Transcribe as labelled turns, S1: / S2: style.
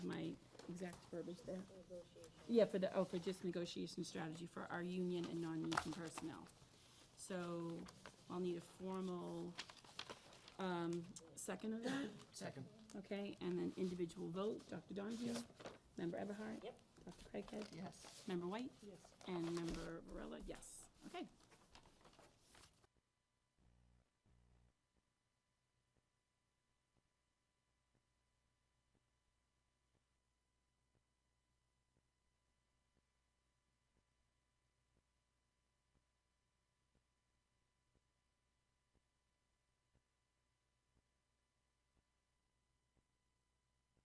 S1: exact verbiage there? Yeah, for the, oh, for just negotiation strategy for our union and non-union personnel. So I'll need a formal, um, second of that,
S2: Second.
S1: okay? And then individual vote, Dr. Donahue?
S2: Yes.
S1: Member Everhart?
S3: Yep.
S1: Dr. Craighead?
S2: Yes.
S1: Member White?
S3: Yes.
S1: And member Varela, yes. Okay,